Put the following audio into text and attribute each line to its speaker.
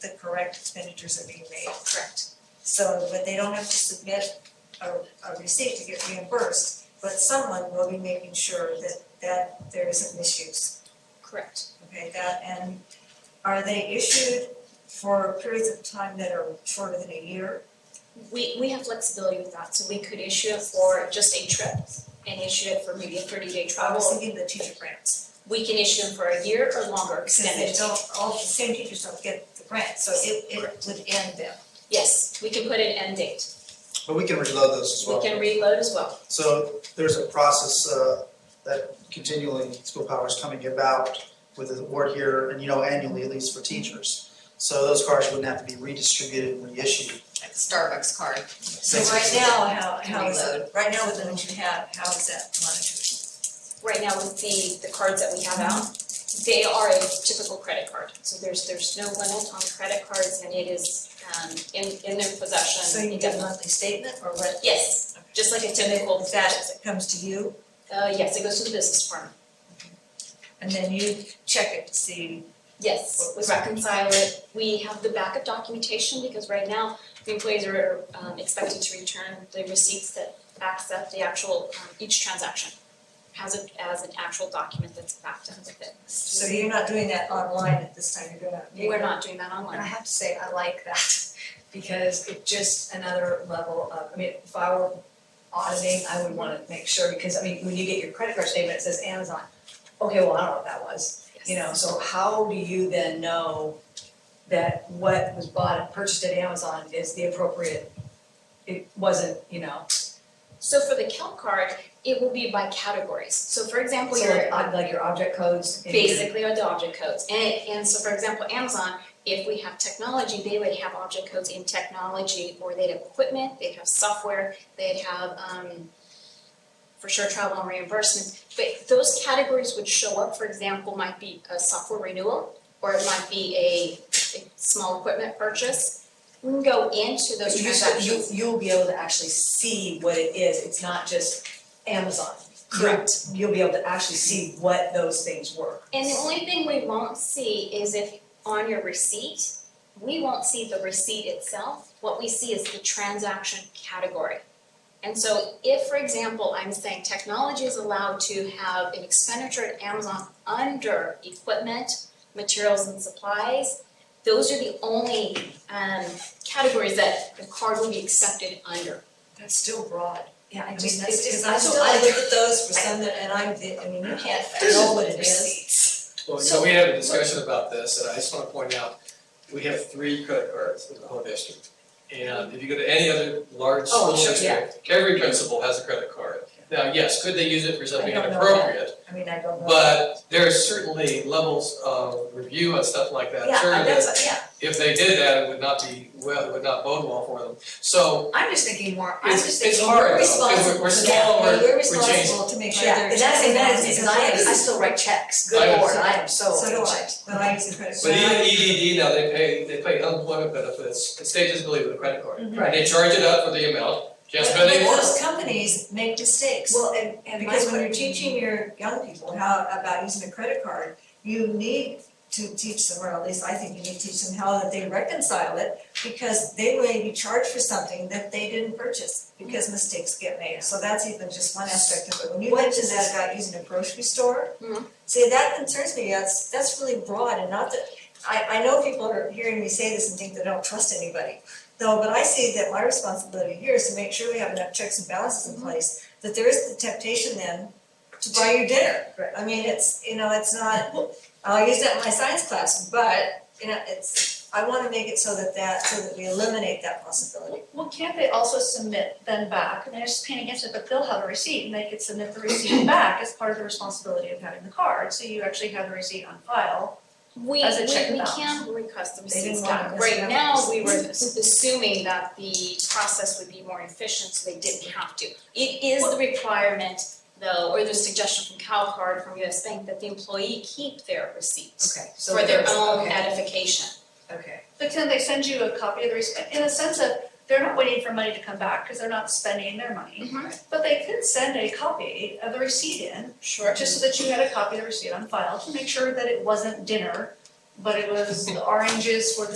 Speaker 1: the correct expenditures are being made.
Speaker 2: Correct.
Speaker 1: So, but they don't have to submit a, a receipt to get reimbursed, but someone will be making sure that, that there isn't misuse.
Speaker 2: Correct.
Speaker 1: Okay, that, and are they issued for periods of time that are shorter than a year?
Speaker 2: We, we have flexibility with that, so we could issue it for just a trip and issue it for maybe a thirty day
Speaker 1: I was
Speaker 2: travel.
Speaker 1: thinking the teacher grants,
Speaker 2: We can issue them for a year or longer
Speaker 1: because they
Speaker 2: extended.
Speaker 1: don't, all the same teachers don't get the grant, so it, it would end them.
Speaker 2: Yes, we can put an end date.
Speaker 3: But we can reload those as
Speaker 2: We
Speaker 3: well.
Speaker 2: can reload as well.
Speaker 3: So there's a process uh, that continually school power is coming about with the award here, and you know annually at least for teachers. So those cards wouldn't have to be redistributed and reissued.
Speaker 4: like the Starbucks card.
Speaker 1: So right now, how, how is it,
Speaker 4: Reload.
Speaker 1: right now with the ones you have, how is that monitored?
Speaker 2: right now with the the cards that we have out, they are a typical credit card. So there's there's no limit on credit cards and it is um in in their possession.
Speaker 1: So Um, you get a
Speaker 2: indefinitely.
Speaker 1: monthly statement or what?
Speaker 2: Yes, just like a
Speaker 1: And then
Speaker 2: typical
Speaker 1: that comes to you?
Speaker 2: Uh yes, it goes to the business department.
Speaker 1: And then you check it to see,
Speaker 2: Yes, we reconcile it. We have the backup documentation because right now the employees are um expected to return the receipts that backs up the actual um each transaction. Has it as an actual document that's backed up with it.
Speaker 1: so you're not doing that online at this time, you're doing it.
Speaker 2: We're not doing that online.
Speaker 4: And I have to say, I like that because it's just another level of, I mean, if I were auditing, I would wanna make sure because I mean, when you get your credit card statement, it says Amazon. Okay, well, I don't know what that was, you know, so how do you then know that what was bought and purchased at Amazon is the appropriate? It wasn't, you know,
Speaker 2: So for the count card, it will be by categories. So for example,
Speaker 4: so
Speaker 2: your
Speaker 4: like, ob- like your object codes. and your-
Speaker 2: basically are the object codes. And and so for example, Amazon, if we have technology, they would have object codes in technology or they'd have equipment, they'd have software, they'd have um for sure travel and reimbursements. But those categories would show up, for example, might be a software renewal or it might be a a small equipment purchase. We can go into those
Speaker 4: But you
Speaker 2: transactions.
Speaker 4: should, you, you'll be able to actually see what it is, it's not just Amazon. You'll-
Speaker 2: Correct.
Speaker 4: You'll be able to actually see what those things were.
Speaker 2: And the only thing we won't see is if on your receipt, we won't see the receipt itself. What we see is the transaction category. And so if, for example, I'm saying technology is allowed to have an expenditure at Amazon under equipment, materials and supplies, those are the only um categories that the card will be accepted under.
Speaker 1: That's still broad.
Speaker 4: Yeah, I
Speaker 1: I mean,
Speaker 4: just,
Speaker 1: that's,
Speaker 4: it's
Speaker 1: because
Speaker 4: just, I
Speaker 1: I
Speaker 4: still
Speaker 1: still, I look at those for some that, and I'm, the- I mean, you can't know what it is.
Speaker 5: Well, you
Speaker 4: So-
Speaker 5: know, we had a discussion about this, and I just wanna point out, we have three credit cards in the whole district. And if you go to any other large
Speaker 4: Oh,
Speaker 5: school
Speaker 4: sure, yeah.
Speaker 5: district, every principal has a credit card. Now, yes, could they use it for something
Speaker 1: I don't know
Speaker 5: inappropriate,
Speaker 1: I mean, I don't know.
Speaker 5: but uh, there are certainly levels of review and stuff like that.
Speaker 1: Yeah,
Speaker 5: Sure,
Speaker 1: I-
Speaker 5: that
Speaker 1: that's, yeah,
Speaker 5: if they did that, it would not be, well, it would not bode well for them. So
Speaker 4: I'm just thinking more, I'm
Speaker 5: it's,
Speaker 4: just
Speaker 5: it's
Speaker 4: thinking.
Speaker 5: hard though,
Speaker 4: more responsible.
Speaker 5: because we're, we're
Speaker 1: yeah, well,
Speaker 5: small, we're,
Speaker 1: we're
Speaker 5: we're changing.
Speaker 1: responsible to make sure
Speaker 4: Yeah,
Speaker 1: they're
Speaker 4: and that's,
Speaker 1: checking
Speaker 4: and that
Speaker 1: all
Speaker 4: is,
Speaker 1: these
Speaker 4: because I, I
Speaker 1: items.
Speaker 4: still write checks,
Speaker 5: I
Speaker 4: good lord,
Speaker 5: understand.
Speaker 4: I am so.
Speaker 1: So do I,
Speaker 4: impatient.
Speaker 1: when I use a credit
Speaker 5: But
Speaker 1: card.
Speaker 5: even EDD now, they pay, they pay unemployment benefits, it stays disability with a credit card. And
Speaker 4: Right,
Speaker 5: they charge it up for the amount, just
Speaker 1: Mm-hmm. But-
Speaker 5: when they
Speaker 1: but
Speaker 5: work.
Speaker 1: those companies make mistakes.
Speaker 4: well, and, and my.
Speaker 1: Because when you're teaching your young people how, about using a credit card, you need to teach them, or at least I think you need to teach them how that they reconcile it, because they may be charged for something that they didn't purchase, because mistakes get made. So that's even just one aspect of it. When you
Speaker 4: What
Speaker 1: mentioned
Speaker 4: is-
Speaker 1: that about using a grocery store,
Speaker 2: Mhm.
Speaker 1: see, that concerns me, that's, that's really broad and not that, I, I know people are hearing me say this and think they don't trust anybody. No, but I see that my responsibility here is to make sure we have enough checks and balances
Speaker 4: Mhm.
Speaker 1: in place, that there is the temptation then to buy your dinner.
Speaker 4: Right.
Speaker 1: I mean, it's, you know, it's not, I'll use that in my science class, but, you know, it's, I wanna make it so that that, so that we eliminate that possibility.
Speaker 6: Well, can't they also submit then back, and they're just paying against it, but they'll have a receipt, and they could submit the receipt back as part of the responsibility of having the card, so you actually have the receipt on file.
Speaker 2: We, we, we
Speaker 6: As a check and balance.
Speaker 2: can request the
Speaker 1: They didn't
Speaker 2: receipts
Speaker 1: want us
Speaker 2: back.
Speaker 1: to
Speaker 2: Right
Speaker 1: have
Speaker 2: now,
Speaker 1: the
Speaker 2: we were assuming that the process would be more efficient, so they didn't have to. It is the requirement though, or the suggestion from CalCard, from US Bank, that the employee keep their receipts
Speaker 4: Okay, so
Speaker 2: for their
Speaker 4: there's-
Speaker 2: own
Speaker 4: okay,
Speaker 2: edification.
Speaker 4: okay.
Speaker 6: But can they send you a copy of the receipt, in a sense of, they're not waiting for money to come back, cause they're not spending their money. But they could send a copy of the receipt in,
Speaker 2: Sure.
Speaker 6: just so that you had a copy of the receipt on file, to make sure that it wasn't dinner, but it was the oranges for the